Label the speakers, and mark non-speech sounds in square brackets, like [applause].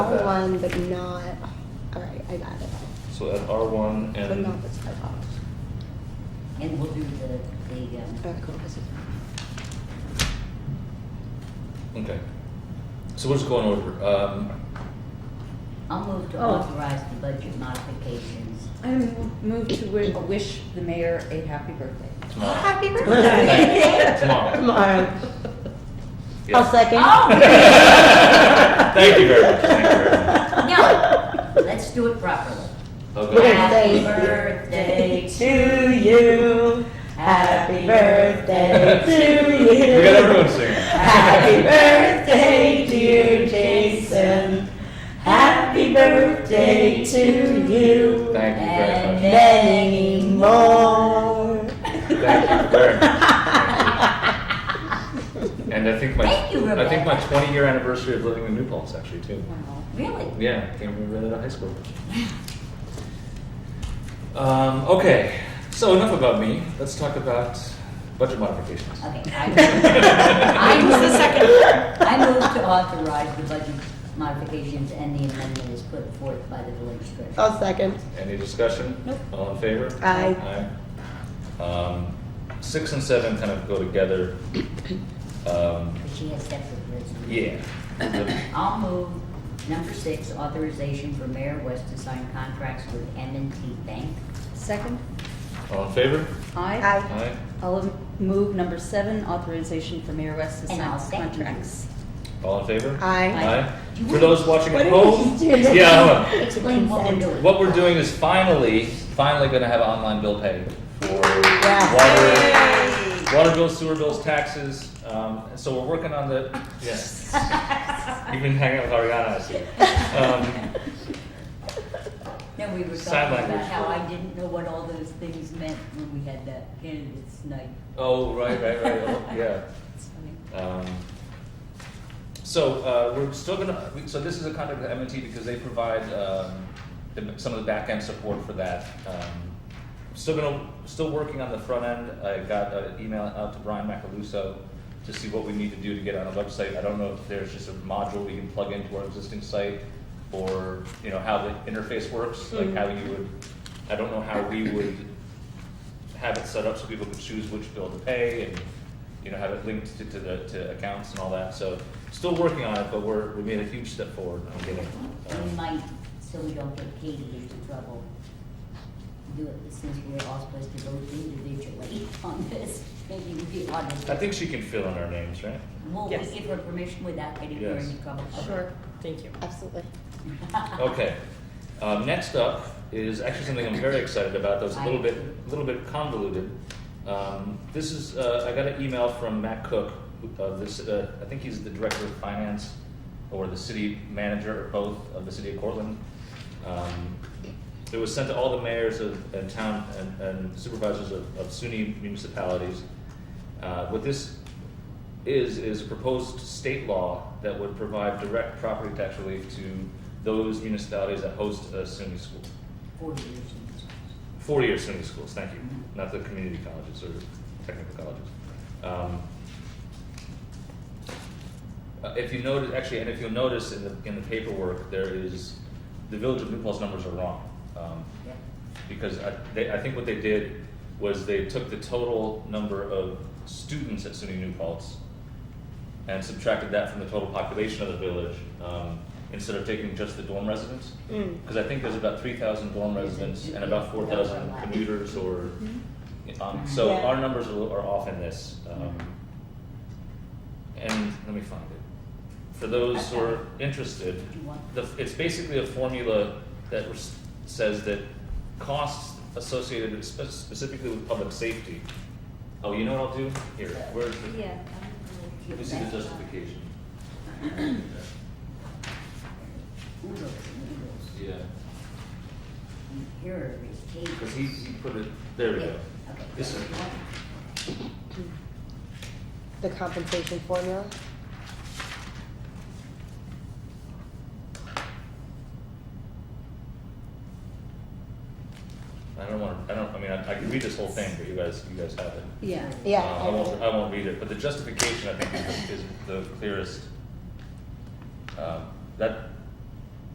Speaker 1: one, but not, all right, I got it.
Speaker 2: So at R one
Speaker 1: But
Speaker 2: and,
Speaker 1: not this part off.
Speaker 3: And we'll do the, the, um,
Speaker 1: Oh, cool, this is-
Speaker 2: okay. So we'll just go in order. Um,
Speaker 3: I'll move to
Speaker 4: Oh.
Speaker 3: authorize the budget modifications.
Speaker 4: I move to wi- wish the mayor a happy birthday.
Speaker 3: [laughs]
Speaker 2: tomorrow.
Speaker 1: Happy birthday.
Speaker 2: Tomorrow.
Speaker 1: Tomorrow.
Speaker 2: Yeah.
Speaker 1: I'll second.
Speaker 2: Thank you very much, thank you very much.
Speaker 3: No, let's do it properly.
Speaker 1: We're
Speaker 2: [laughs] Okay.
Speaker 1: gonna
Speaker 3: Happy
Speaker 1: say-
Speaker 3: birthday to
Speaker 4: To you,
Speaker 3: happy birthday
Speaker 4: to
Speaker 2: We got everyone singing.
Speaker 3: Happy
Speaker 4: birthday, dear Jason. Happy birthday to you.
Speaker 2: Thank you very much.
Speaker 3: many
Speaker 4: more.
Speaker 2: Thank you very
Speaker 3: [laughs]
Speaker 2: much. Thank you. And I think my,
Speaker 3: Thank you,
Speaker 2: I think my
Speaker 3: Rebecca.
Speaker 2: 20 year anniversary of living in New Paltz actually too.
Speaker 4: Wow.
Speaker 3: Really?
Speaker 2: Yeah, I can remember that at high school. Um, okay, so enough about me. Let's talk about budget modifications.
Speaker 3: Okay. I I move, I move to authorize the budget modifications and the amendment is put forth by the village treasurer.
Speaker 1: [laughs] I'll second.
Speaker 2: Any discussion?
Speaker 3: Nope.
Speaker 2: All in favor?
Speaker 1: Aye.
Speaker 2: Aye. Um, six and seven kind of go together. Um,
Speaker 3: But she has separate resolutions. [coughs]
Speaker 2: yeah.
Speaker 3: I'll move number six, authorization for Mayor West to sign contracts with m and T Bank.
Speaker 4: Second,
Speaker 2: All in favor?
Speaker 4: aye.
Speaker 1: Aye.
Speaker 2: Aye.
Speaker 4: I'll move number seven, authorization for Mayor West to
Speaker 3: And
Speaker 4: sign
Speaker 3: I'll second you.
Speaker 4: contracts.
Speaker 2: All in favor?
Speaker 1: Aye.
Speaker 2: Aye. For those watching
Speaker 1: What
Speaker 2: at
Speaker 1: did
Speaker 2: home,
Speaker 1: we just do?
Speaker 2: [laughs] yeah, hold
Speaker 3: Explain [laughs] what we're
Speaker 2: on.
Speaker 3: doing.
Speaker 2: what we're doing is finally, finally going to have online bill pay for water, water bills, sewer bills, taxes. Um, and so we're working on the. Yes. You've been hanging out with Ariana, I see. Um,
Speaker 3: No, we were
Speaker 2: Sign
Speaker 3: talking about
Speaker 2: language.
Speaker 3: how I didn't know what all those things meant when we had that candidates night.
Speaker 2: oh, right, right, right. Oh, yeah.
Speaker 3: It's funny.
Speaker 2: Um, So, uh, we're still gonna, we- so this is a contract with M&T because they provide, um, the- some of the back-end support for that. Um, Still gonna, still working on the front end, I got an email out to Brian Macaluso to see what we need to do to get on the website. I don't know if there's just a module we can plug into our existing site, or, you know, how the interface works, like how you would, I don't know how we would have it set up so people could choose which bill to pay and, you know, have it linked to, to the, to accounts and all that, so still working on it, but we're, we made a huge step forward on getting,
Speaker 3: We
Speaker 2: um,
Speaker 3: might, so we don't get Katie into trouble, do it since we're all supposed to vote individually on this, maybe we'd be honest.
Speaker 2: I think she can fill in our names, right?
Speaker 3: Will we
Speaker 5: Yes.
Speaker 3: give her permission without getting her
Speaker 2: Yes.
Speaker 3: into trouble? [laughs]
Speaker 5: Sure, thank you.
Speaker 1: Absolutely.
Speaker 3: Uh-huh.
Speaker 2: Okay, um, next up is actually something I'm very excited about, that's a little bit, a little bit convoluted. Um, this is, uh, I got an email from Matt Cook, who- of this, uh, I think he's the director of finance or the city manager or both of the city of Cortland. Um, it was sent to all the mayors of, and town and, and supervisors of, of SUNY municipalities. Uh, what this is is a proposed state law that would provide direct property tax relief to those municipalities that host a SUNY school.
Speaker 3: Four years. in this.
Speaker 2: Four-year SUNY schools, thank you, not the community colleges or technical colleges. Um, uh, if you notice, actually, and if you'll notice in the, in the paperwork, there is, the Village of New Paltz numbers are wrong. Um,
Speaker 3: Yeah.
Speaker 2: because I, they, I think what they did was they took the total number of students at SUNY New Paltz and subtracted that from the total population of the village um, instead of taking just the dorm residents.
Speaker 1: Mm.
Speaker 2: Because I think there's about 3,000 dorm residents and about 4,000 commuters or.
Speaker 4: Hmm?
Speaker 2: Um, so
Speaker 1: Yeah.
Speaker 2: our numbers are, are off in this. Um, and let me find it. For those who are interested,
Speaker 3: Do you want?
Speaker 2: the, it's basically a formula that res- says that costs associated spe- specifically with public safety. Oh, you know what I'll do? Here, where's the,
Speaker 4: Yeah.
Speaker 2: let me see the justification.
Speaker 3: Oodles and
Speaker 2: Yeah,
Speaker 3: oodles. And Here is Katie.
Speaker 2: because he, he put it, there we
Speaker 3: Yeah,
Speaker 2: go.
Speaker 3: okay.
Speaker 2: This is-
Speaker 1: The compensation formula.
Speaker 2: I don't want to, I don't, I mean, I, I can read this whole thing, but you guys, you guys have it.
Speaker 4: Yeah.
Speaker 1: Yeah.
Speaker 2: Uh, I
Speaker 1: I
Speaker 2: won't,
Speaker 1: know.
Speaker 2: I won't read it, but the justification, I think, is, is the clearest. Um, That,